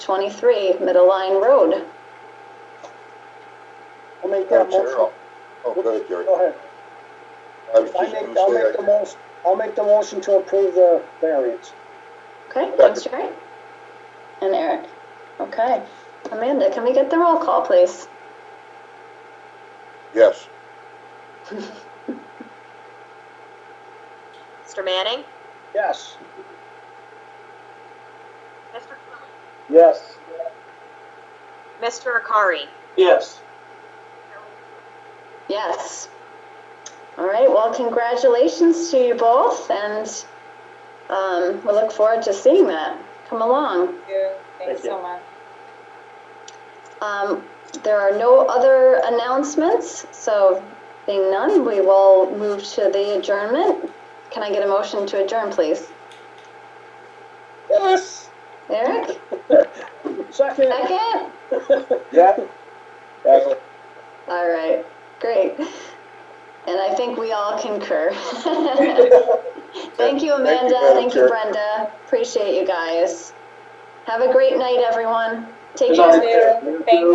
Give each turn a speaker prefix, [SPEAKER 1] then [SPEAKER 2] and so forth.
[SPEAKER 1] 23 Middle Line Road.
[SPEAKER 2] I'll make
[SPEAKER 3] Madam
[SPEAKER 2] that
[SPEAKER 3] Chair,
[SPEAKER 2] motion.
[SPEAKER 3] I'll- Oh, go ahead, Jerry.
[SPEAKER 2] Go ahead.
[SPEAKER 3] I was
[SPEAKER 2] I
[SPEAKER 3] just
[SPEAKER 2] make,
[SPEAKER 3] gonna
[SPEAKER 2] I'll make
[SPEAKER 3] say,
[SPEAKER 2] the most, I'll make the motion to approve the variance.
[SPEAKER 1] Okay, thanks, Jerry. And Eric. Okay. Amanda, can we get the roll call, please?
[SPEAKER 3] yes,
[SPEAKER 4] Mr. Manning?
[SPEAKER 2] Yes.
[SPEAKER 4] Mr. Trilling?
[SPEAKER 2] Yes.
[SPEAKER 4] Mr. Akari?
[SPEAKER 2] Yes.
[SPEAKER 1] Yes. All right, well, congratulations to you both, and um, we look forward to seeing that come along.
[SPEAKER 2] Thank you so
[SPEAKER 4] much.
[SPEAKER 1] Um, There are no other announcements, so being none, we will move to the adjournment. Can I get a motion to adjourn, please?
[SPEAKER 2] Yes.
[SPEAKER 1] Eric,
[SPEAKER 2] Second.
[SPEAKER 1] second?
[SPEAKER 2] Yeah.
[SPEAKER 1] All right, great. And I think we all concur. Thank you, Amanda.
[SPEAKER 3] Madam
[SPEAKER 1] Thank you,
[SPEAKER 3] Chair.
[SPEAKER 1] Brenda. Appreciate you guys. Have a great night, everyone. Take
[SPEAKER 2] Good
[SPEAKER 1] care.
[SPEAKER 2] night. Thank you.